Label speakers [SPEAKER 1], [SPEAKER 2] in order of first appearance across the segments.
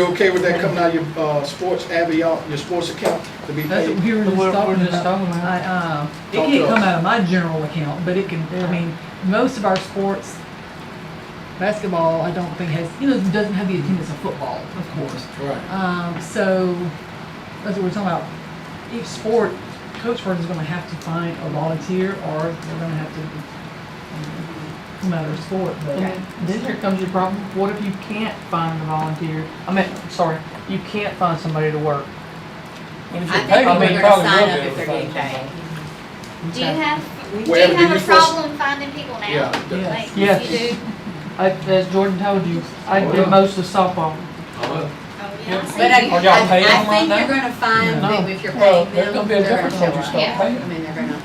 [SPEAKER 1] You okay with that coming out of your, uh, sports, Avion, your sports account to be
[SPEAKER 2] That's
[SPEAKER 1] paid?
[SPEAKER 2] what we were just
[SPEAKER 3] We're- we're
[SPEAKER 2] talking
[SPEAKER 3] just
[SPEAKER 2] about.
[SPEAKER 3] talking about.
[SPEAKER 2] I, uh, it
[SPEAKER 1] Talk
[SPEAKER 2] can't
[SPEAKER 1] to
[SPEAKER 2] come
[SPEAKER 1] us.
[SPEAKER 2] out of my general account, but it can, I mean, most of our sports, basketball, I don't think has, you know, doesn't have the attendance of football, of course.
[SPEAKER 1] Right.
[SPEAKER 2] Um, so, that's what we're talking about. Each sport, Coach Vernon's gonna have to find a volunteer, or they're gonna have to, um, no matter the sport,
[SPEAKER 3] Okay,
[SPEAKER 2] but.
[SPEAKER 3] then here comes your problem. What if you can't find a volunteer? I mean, sorry, you can't find somebody to work.
[SPEAKER 4] I think people are
[SPEAKER 3] mean,
[SPEAKER 4] gonna
[SPEAKER 3] probably
[SPEAKER 4] sign
[SPEAKER 3] will be
[SPEAKER 4] up if they're
[SPEAKER 3] able to
[SPEAKER 4] getting
[SPEAKER 3] find
[SPEAKER 4] paid.
[SPEAKER 3] somebody.
[SPEAKER 5] Do you
[SPEAKER 3] Okay.
[SPEAKER 5] have, do
[SPEAKER 1] Well,
[SPEAKER 5] you
[SPEAKER 1] did
[SPEAKER 5] have
[SPEAKER 1] you
[SPEAKER 5] a
[SPEAKER 1] first-
[SPEAKER 5] problem finding people now?
[SPEAKER 1] Yeah, the-
[SPEAKER 2] Yes.
[SPEAKER 5] Like,
[SPEAKER 3] Yes.
[SPEAKER 5] You do?
[SPEAKER 3] I, as
[SPEAKER 2] uh,
[SPEAKER 3] Jordan told you, I
[SPEAKER 1] Well.
[SPEAKER 3] did most of softball.
[SPEAKER 5] Oh,
[SPEAKER 3] Yeah.
[SPEAKER 5] yeah. I see.
[SPEAKER 4] But I,
[SPEAKER 3] Are y'all
[SPEAKER 4] I,
[SPEAKER 3] paying
[SPEAKER 4] I
[SPEAKER 3] them
[SPEAKER 4] think
[SPEAKER 3] right
[SPEAKER 4] you're gonna find
[SPEAKER 3] No.
[SPEAKER 4] that if you're
[SPEAKER 3] Well,
[SPEAKER 4] paying
[SPEAKER 3] there's
[SPEAKER 4] them,
[SPEAKER 3] gonna be a
[SPEAKER 4] they're gonna
[SPEAKER 3] difference
[SPEAKER 4] show
[SPEAKER 3] when you
[SPEAKER 4] up.
[SPEAKER 3] start
[SPEAKER 4] Yeah, I
[SPEAKER 3] paying.
[SPEAKER 4] mean, they're gonna, yes,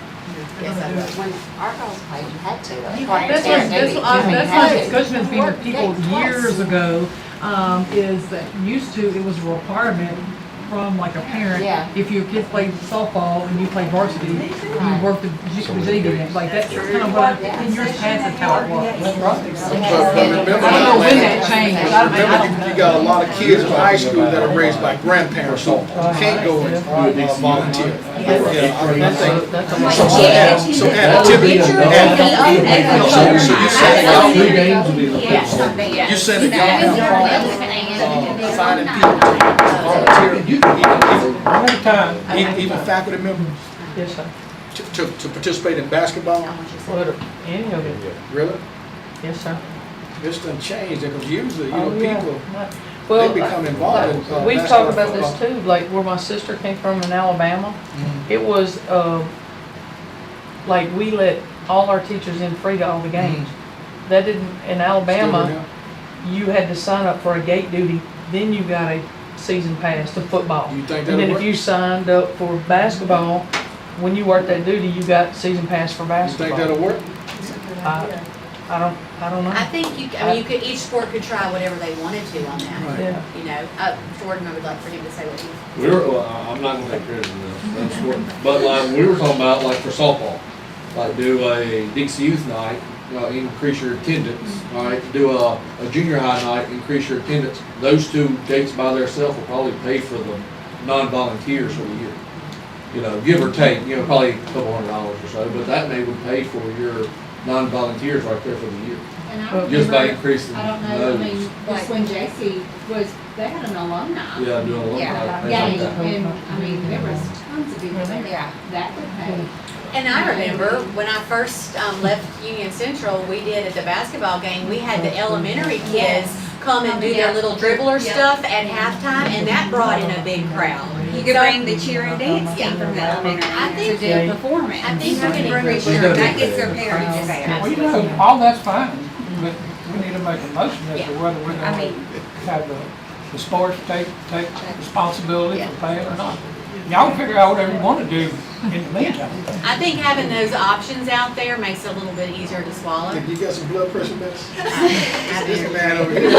[SPEAKER 4] I do.
[SPEAKER 6] When our girls played, you had to.
[SPEAKER 5] You
[SPEAKER 6] Like,
[SPEAKER 5] had
[SPEAKER 2] That's
[SPEAKER 5] to.
[SPEAKER 6] you
[SPEAKER 2] why,
[SPEAKER 6] had
[SPEAKER 2] that's
[SPEAKER 6] to.
[SPEAKER 2] why, I-
[SPEAKER 6] You
[SPEAKER 2] that's
[SPEAKER 6] had
[SPEAKER 2] why
[SPEAKER 6] to.
[SPEAKER 2] discussion's been with
[SPEAKER 6] Worked
[SPEAKER 2] people
[SPEAKER 6] it twice.
[SPEAKER 2] years ago, um, is that used to, it was a requirement from like a parent.
[SPEAKER 6] Yeah.
[SPEAKER 2] If your kid played softball and you played varsity, you
[SPEAKER 6] Right.
[SPEAKER 2] worked the JV game, like that's kind of what, in years past, that's how it was.
[SPEAKER 6] We had
[SPEAKER 1] But-
[SPEAKER 6] to
[SPEAKER 1] but
[SPEAKER 6] get it.
[SPEAKER 1] remember-
[SPEAKER 3] I don't know when that changed. I don't- I
[SPEAKER 1] Remember,
[SPEAKER 3] don't
[SPEAKER 1] you,
[SPEAKER 3] know.
[SPEAKER 1] you got a lot of kids in high school that are raised by grandparents, so can't go and uh, volunteer. Yeah, I mean, I think-
[SPEAKER 3] That's a
[SPEAKER 5] Like,
[SPEAKER 3] lot.
[SPEAKER 1] So,
[SPEAKER 5] yeah.
[SPEAKER 1] add- so activity,
[SPEAKER 5] Get your
[SPEAKER 1] add-
[SPEAKER 5] opinion on it.
[SPEAKER 1] So you said
[SPEAKER 5] I
[SPEAKER 1] y'all
[SPEAKER 5] don't
[SPEAKER 1] three
[SPEAKER 5] know.
[SPEAKER 7] games will be the
[SPEAKER 5] Yeah,
[SPEAKER 7] first.
[SPEAKER 5] something, yeah.
[SPEAKER 1] You said it, y'all
[SPEAKER 5] Yeah,
[SPEAKER 1] have
[SPEAKER 5] it's
[SPEAKER 1] problems,
[SPEAKER 5] already planned.
[SPEAKER 1] uh, finding people to volunteer,
[SPEAKER 3] One at a time.
[SPEAKER 1] even, even- even faculty members
[SPEAKER 3] Yes, sir.
[SPEAKER 1] to, to, to participate in basketball,
[SPEAKER 3] What, any of it.
[SPEAKER 1] really?
[SPEAKER 3] Yes, sir.
[SPEAKER 1] This done changed, because usually, you know,
[SPEAKER 3] Oh, yeah.
[SPEAKER 1] people,
[SPEAKER 3] Well,
[SPEAKER 1] they become involved in. uh, basketball,
[SPEAKER 3] We've
[SPEAKER 1] Mm-hmm.
[SPEAKER 3] talked about this
[SPEAKER 1] football.
[SPEAKER 3] too, like where my sister came from in Alabama. It was, um, like we let all our teachers in free to all the games.
[SPEAKER 1] Mm-hmm.
[SPEAKER 3] That didn't, in Alabama, you had to sign up for a gate duty, then you got a season pass to football.
[SPEAKER 1] You think
[SPEAKER 3] And then
[SPEAKER 1] that'll
[SPEAKER 3] if
[SPEAKER 1] work?
[SPEAKER 3] you signed up for basketball, when you worked that duty, you got season pass for
[SPEAKER 1] You think
[SPEAKER 3] basketball.
[SPEAKER 1] that'll work?
[SPEAKER 3] I I don't, I don't
[SPEAKER 4] I
[SPEAKER 3] know.
[SPEAKER 4] think you, I mean, you could, each sport could try whatever they wanted to on that,
[SPEAKER 1] Right.
[SPEAKER 3] Yeah.
[SPEAKER 4] you know, uh, Jordan, I would like for him to say what he,
[SPEAKER 7] We were, well, I- I'm not gonna take credit for this, that's what, but like, we were talking about like for softball, like do a Dixie Youth Night, uh, increase your attendance, right? Do a, a junior high night, increase your attendance. Those two dates by themselves will probably pay for the non-volunteers for the year. You know, give or take, you know, probably a couple hundred dollars or so, but that may would pay for your non-volunteers right there for the year,
[SPEAKER 8] And I
[SPEAKER 3] Well,
[SPEAKER 8] don't
[SPEAKER 7] just by
[SPEAKER 8] remember,
[SPEAKER 7] increasing
[SPEAKER 8] I don't know, I mean,
[SPEAKER 7] those.
[SPEAKER 8] just when JC was, they had an alumni.
[SPEAKER 7] Yeah, doing a lot
[SPEAKER 8] Yeah,
[SPEAKER 7] of things
[SPEAKER 8] yeah,
[SPEAKER 7] like that.
[SPEAKER 8] and, I mean, there was tons of people there
[SPEAKER 6] Yeah.
[SPEAKER 8] that would pay.
[SPEAKER 4] And I remember when I first um, left Union Central, we did at the basketball game, we had the elementary kids come and do their little dribbler
[SPEAKER 8] Yeah.
[SPEAKER 4] stuff at halftime, and that brought in a big crowd.
[SPEAKER 5] You could bring the cheer and dance
[SPEAKER 4] Yeah.
[SPEAKER 5] team from the elementary.
[SPEAKER 4] I
[SPEAKER 5] to
[SPEAKER 4] think-
[SPEAKER 5] do performance.
[SPEAKER 4] I think we can bring
[SPEAKER 7] She's
[SPEAKER 5] Sure,
[SPEAKER 7] gonna
[SPEAKER 5] that
[SPEAKER 7] be
[SPEAKER 5] gets
[SPEAKER 7] there.
[SPEAKER 5] their parents
[SPEAKER 6] Well,
[SPEAKER 5] there.
[SPEAKER 9] You know, all that's fine, but we need to make a motion as to whether we're
[SPEAKER 5] I
[SPEAKER 9] gonna
[SPEAKER 5] mean,
[SPEAKER 9] have the, the sports take, take responsibility for paying or not. Y'all figure out whatever you wanna do in the meantime.
[SPEAKER 4] I think having those options out there makes it a little bit easier to swallow.
[SPEAKER 1] Think you got some blood pressure meds?
[SPEAKER 4] I
[SPEAKER 1] This
[SPEAKER 4] do.
[SPEAKER 1] man over here.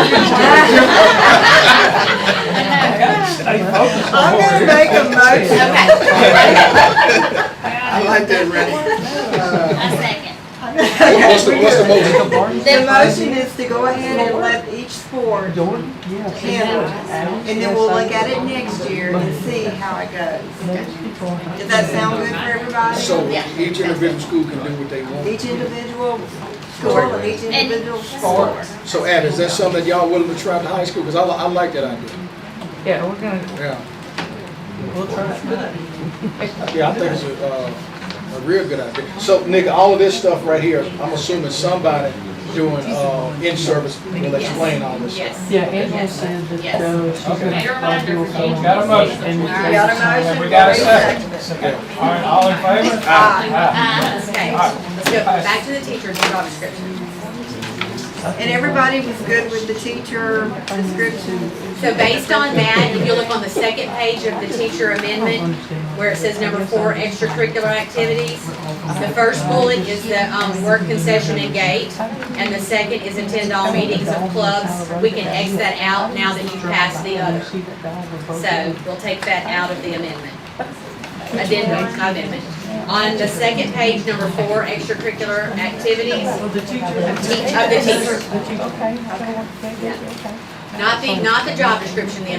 [SPEAKER 9] Stay focused on
[SPEAKER 1] I'm
[SPEAKER 9] what
[SPEAKER 1] gonna
[SPEAKER 9] we're
[SPEAKER 1] make a motion.
[SPEAKER 4] Okay,
[SPEAKER 1] I like that, Randy.
[SPEAKER 5] a second.
[SPEAKER 1] What's the, what's the motion?
[SPEAKER 10] The motion is to go ahead and let each sport,
[SPEAKER 3] Jordan? Yes.
[SPEAKER 10] Handle it.
[SPEAKER 3] Adam?
[SPEAKER 10] and then we'll look at it next year and see how it goes. Does that sound good for everybody?
[SPEAKER 1] So each individual school can do what they want.
[SPEAKER 10] Each individual school, and each individual sport.
[SPEAKER 1] So Ab, is that something that y'all willing to try at the high school? Because I, li- I like that idea.
[SPEAKER 3] Yeah, we're gonna,
[SPEAKER 1] Yeah,
[SPEAKER 3] we'll try it.
[SPEAKER 1] yeah, I think it's a, uh, a real good idea. So Nick, all of this stuff right here, I'm assuming somebody doing, uh, in-service will explain all this stuff.
[SPEAKER 4] yes.
[SPEAKER 3] Yeah, Angela said that, uh, she's gonna.
[SPEAKER 9] Okay.
[SPEAKER 3] I'll do a
[SPEAKER 9] We got a motion.
[SPEAKER 3] And we-
[SPEAKER 10] We got a motion.
[SPEAKER 9] We got a second.
[SPEAKER 1] Yeah.
[SPEAKER 9] All right, all in favor? Aye.
[SPEAKER 4] Uh, Okay, let's go back to the teacher's job description.
[SPEAKER 10] And everybody was good with the teacher description?
[SPEAKER 4] So based on that, if you look on the second page of the teacher amendment, where it says number four, extracurricular activities, the first bullet is the, um, work concession and gate. And the second is attend all meetings of clubs. We can X that out now that you passed the other. So we'll take that out of the amendment. Addendum, not amendment. On the second page, number four, extracurricular activities,
[SPEAKER 2] Well, the teacher.
[SPEAKER 4] teach, of the teacher.
[SPEAKER 3] Okay, I don't want to say that, okay.
[SPEAKER 4] Not the, not the job description, the